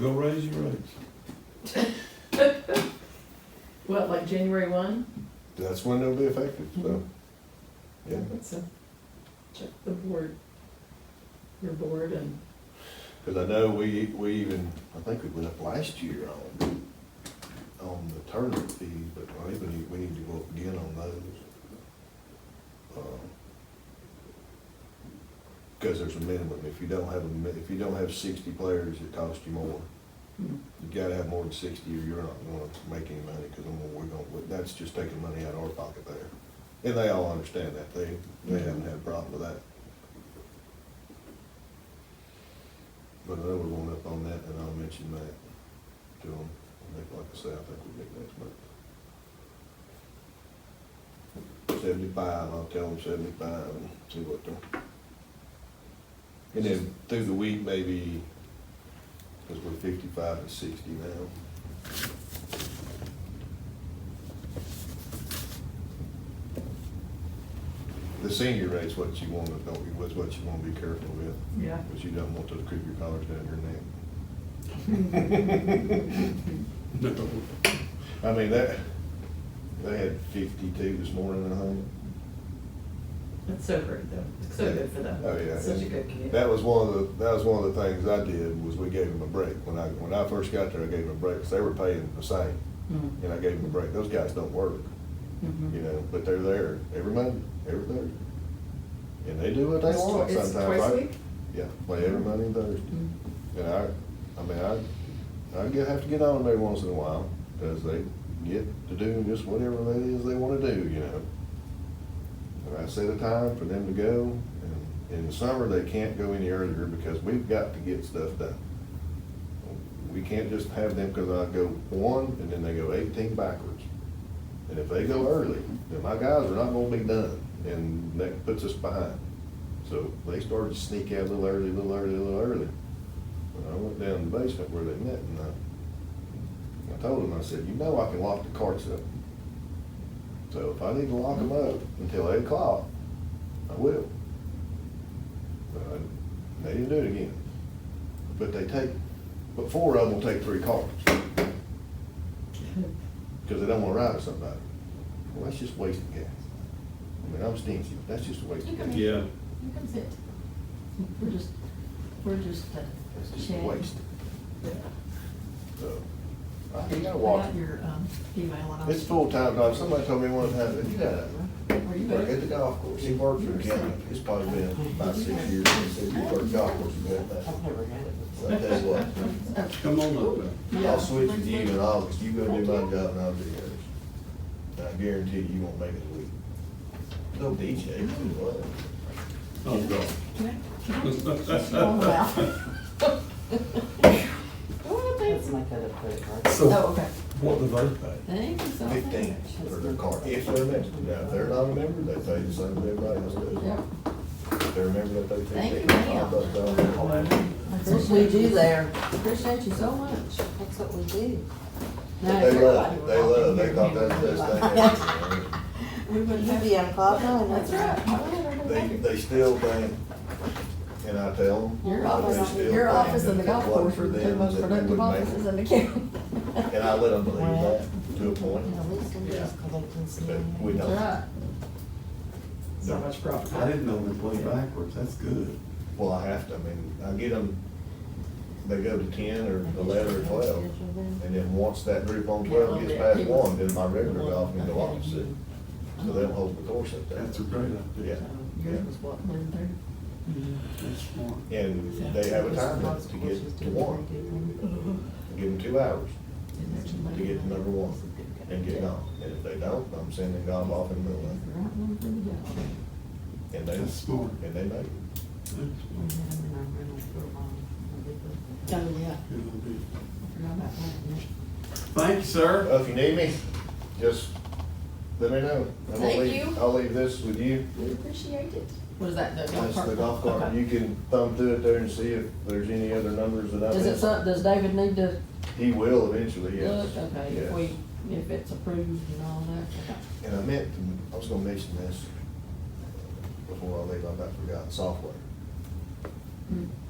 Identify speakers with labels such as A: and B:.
A: go raise your rates.
B: What, like January one?
C: That's when they'll be effective, so,
A: Mm-hmm.
C: yeah.
B: So uh, check the board, your board and,
C: Cause I know we, we even, I think we went up last year on, on the tournament fees, but I think we need, we need to go up again on those. Um, Cause there's a minimum, if you don't have a, mi- if you don't have sixty players, it costs you more.
B: hmm,
C: You gotta have more than sixty or you're not gonna make any money, cause then we're gonna, that's just taking money out of our pocket there. And they all understand that, they, they haven't had a problem with that. But I know we're going up on that, and I'll mention that to them, I think, like I say, I think we'll meet next month. Seventy-five, I'll tell them seventy-five and see what they're. And then through the week, maybe because we're fifty-five to sixty now. The senior rate's what you want to, don't you, was what you want to be careful with,
B: yeah.
C: because you don't want those creep your collars down your neck.
A: No.
C: I mean, that, they had fifty-two this morning, I think.
B: It's so great though, it's so good for them.
C: Oh, yeah.
B: Such a good community.
C: That was one of the, that was one of the things I did, was we gave them a break. When I, when I first got there, I gave them a break, 'cause they were paying the same,
B: Mhm,
C: and I gave them a break. Those guys don't work.
B: mhm.
C: you know, but they're there every Monday, every Thursday. And they do what they
B: It's twi-
C: want
B: it's
C: sometimes.
B: twice a
C: I-
B: week?
C: Yeah, play every Monday and Thursday.
B: Mm.
C: And I, I mean, I, I get- have to get on them every once in a while, because they get to do just whatever that is they want to do, you know. And I set a time for them to go, and in the summer, they can't go any earlier because we've got to get stuff done. We can't just have them, because I go one, and then they go eighteen backwards. And if they go early, then my guys are not gonna be done, and that puts us behind. So they started to sneak out a little early, a little early, a little early. And I went down in the basement where they met, and I, I told them, I said, you know I can lock the carts up. So if I need to lock them up until eight o'clock, I will. But I- They didn't do it again. But they take, but four of them will take three carts. because they don't want to ride with somebody. Well, that's just wasting gas. I mean, I'm stingy, but that's just a waste of
B: You
C: gas.
B: can-
A: Yeah,
B: Here comes it. We're just, we're just. uh,
C: That's just a
B: sharing.
C: waste,
B: Yeah.
C: so. I think I
B: I
C: walk,
B: got your, um, email and I was-
C: it's full-time job, somebody told me one time, that you got a,
B: Were you
C: work at
B: there?
C: the golf course, he worked for the county, it's probably been about six years since he worked at the golf course and got that.
D: I've never had it.
C: So I tell you what,
A: come on up there.
C: I'll switch with you in August, you go do my job and I'll do yours. And I guarantee you, you won't make it a week. No DJ, what?
A: Oh, God.
B: Oh, wow. Oh, thanks.
D: That's my kind of credit card.
B: Oh, okay.
A: what do they pay?
B: Thank you so much.
C: fifteen for their car, if they're a member. Now, if they're not a member, they pay the same as everybody else
B: Yeah.
C: does. If they're a member, they pay fifteen.
B: Thank you, ma'am.
C: Five bucks down.
A: All that.
B: That's
D: That's what we do there.
B: Appreciate you so much.
D: That's what we do.
B: Now,
C: They
B: if
C: love,
B: everybody
C: it.
B: were
C: they love, it.
B: walking
C: they thought
B: here,
C: that's the best
B: everybody-
C: thing. ever.
B: We wouldn't
D: You
B: have.
D: be on cloud nine, that's right.
C: They, they still think, and I tell them.
B: Your
C: but they
B: office,
C: still
B: your
C: think
B: office
C: that
B: and the
C: if it
B: golf
C: wasn't
B: course
C: for
B: are the two
C: them,
B: most
C: that they
B: productive
C: wouldn't make it.
B: offices in the county.
C: And I let them believe that to a point,
D: At least we
C: yeah,
D: just collecting some
C: but we
D: money.
C: don't.
B: That's right. So much profit.
A: I didn't know they played backwards, that's good.
C: Well, I have to, I mean, I get them, they go to ten or eleven or twelve. And then once that group on twelve gets past one, then my regular golf can go off at six. So they don't hold the course up there.
A: That's a great idea.
C: Yeah. Mm-hmm.
B: Yours was what, one thirty?
A: That's smart.
C: And they have a time limit to get to one. Give them two hours to get to number one and get on. And if they don't, I'm sending golf off in the middle of
B: Right one for the golf.
C: it. And they,
A: That's smart.
C: and they make it.
A: That's smart.
B: Oh, yeah.
A: Good idea.
B: I forgot about that.
A: Thank you, sir.
C: Well, if you need me, just let me know. I'm gonna
B: Thank
C: leave-
B: you.
C: I'll leave this with you.
B: We appreciate it. What is that, the golf
C: That's
B: cart?
C: the golf cart.
B: Okay.
C: You can thumb through it there and see if there's any other numbers that I
B: Does it,
C: missed.
B: so- does David need to
C: He will eventually, yes.
B: look, okay, if
C: Yes.
B: we, if it's approved and all that? Okay.
C: And I meant, to- I was gonna mention this before I leave, I about forgot, software.
B: Mm.